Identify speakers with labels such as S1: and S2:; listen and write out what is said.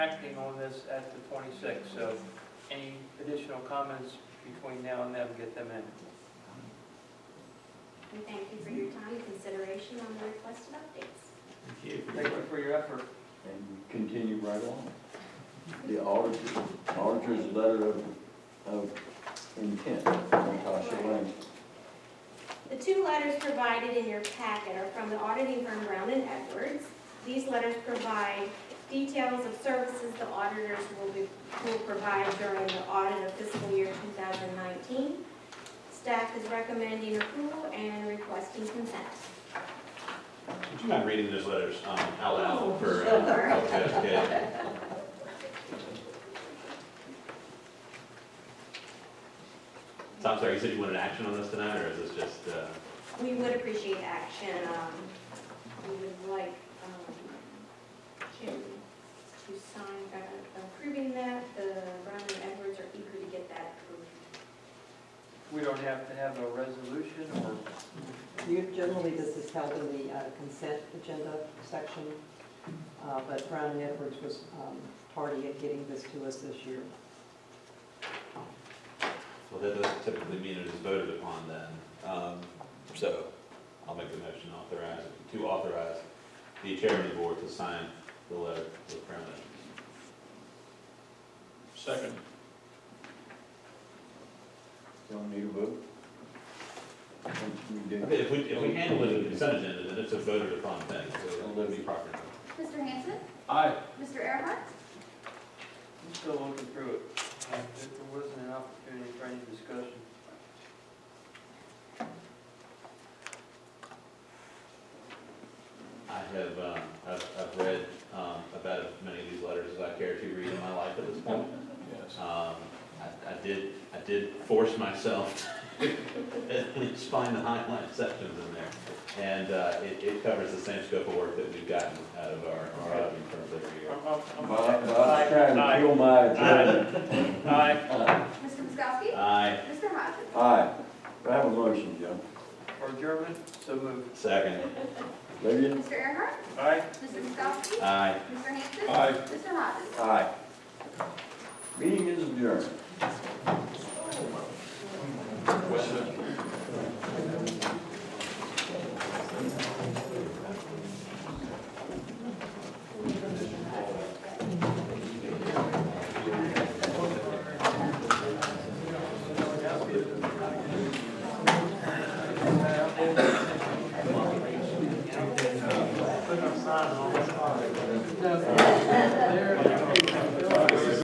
S1: acting on this at the 26th, so any additional comments between now and then, get them in.
S2: And thank you for your time and consideration on the requested updates.
S1: Thank you for your effort.
S3: And we continue right on. The auditor, auditor's letter of, of intent, Natasha Lane.
S2: The two letters provided in your packet are from the auditing firm Brown and Edwards. These letters provide details of services the auditors will be, will provide during the audit of fiscal year 2019. Staff is recommending approval and requesting consent.
S4: Would you mind reading those letters um, out loud for? uh,
S2: Sure.
S4: okay, okay. So I'm sorry, you said you wanted action on this tonight, or is this just, uh,
S2: We would appreciate action, um, we would like, um, to, to sign, uh, approving that, the Brown and Edwards are eager to get that approved.
S1: We don't have to have a resolution or
S5: You- Generally, this is held in the uh, consent agenda section, uh, but Brown and Edwards was um, tardy at getting this to us this year.
S4: well, that doesn't typically mean it is voted upon then. Um, So I'll make the motion authorize, to authorize the chairman of the board to sign the letter with Brown Second.
S3: Don't need a vote? Think we do?
S4: If we, if we handle it in the consent agenda, then it's a voted upon thing, so it'll be proper.
S6: Mr. Hanson?
S4: Aye.
S6: Mr. Earhart?
S1: I'm still looking through it. And if There wasn't an opportunity for any discussion.
S4: I have, um, I've, I've read, um, about as many of these letters as I care to read in my life at this point. Yes. Um, I, I did, I did force myself to at least find the highlight sections in there. And, uh, it, it covers the same scope of work that we've gotten out of our, our auditing firms every year.
S1: I'm- I'm- I'm-
S3: Bob, Bob's trying to kill my agenda.
S1: Aye,
S3: Aye.
S6: Mr. Miskowski?
S4: Aye,
S6: Mr. Hodges?
S3: Aye. Do I have a motion, Joe?
S1: for adjournment, so moved.
S4: second,
S3: Lillian?
S6: Mr. Earhart?
S1: Aye.
S6: Mr. Miskowski?
S4: aye.
S6: Mr. Hanson? Mr. Hodges?
S3: Aye. Meeting is adjourned.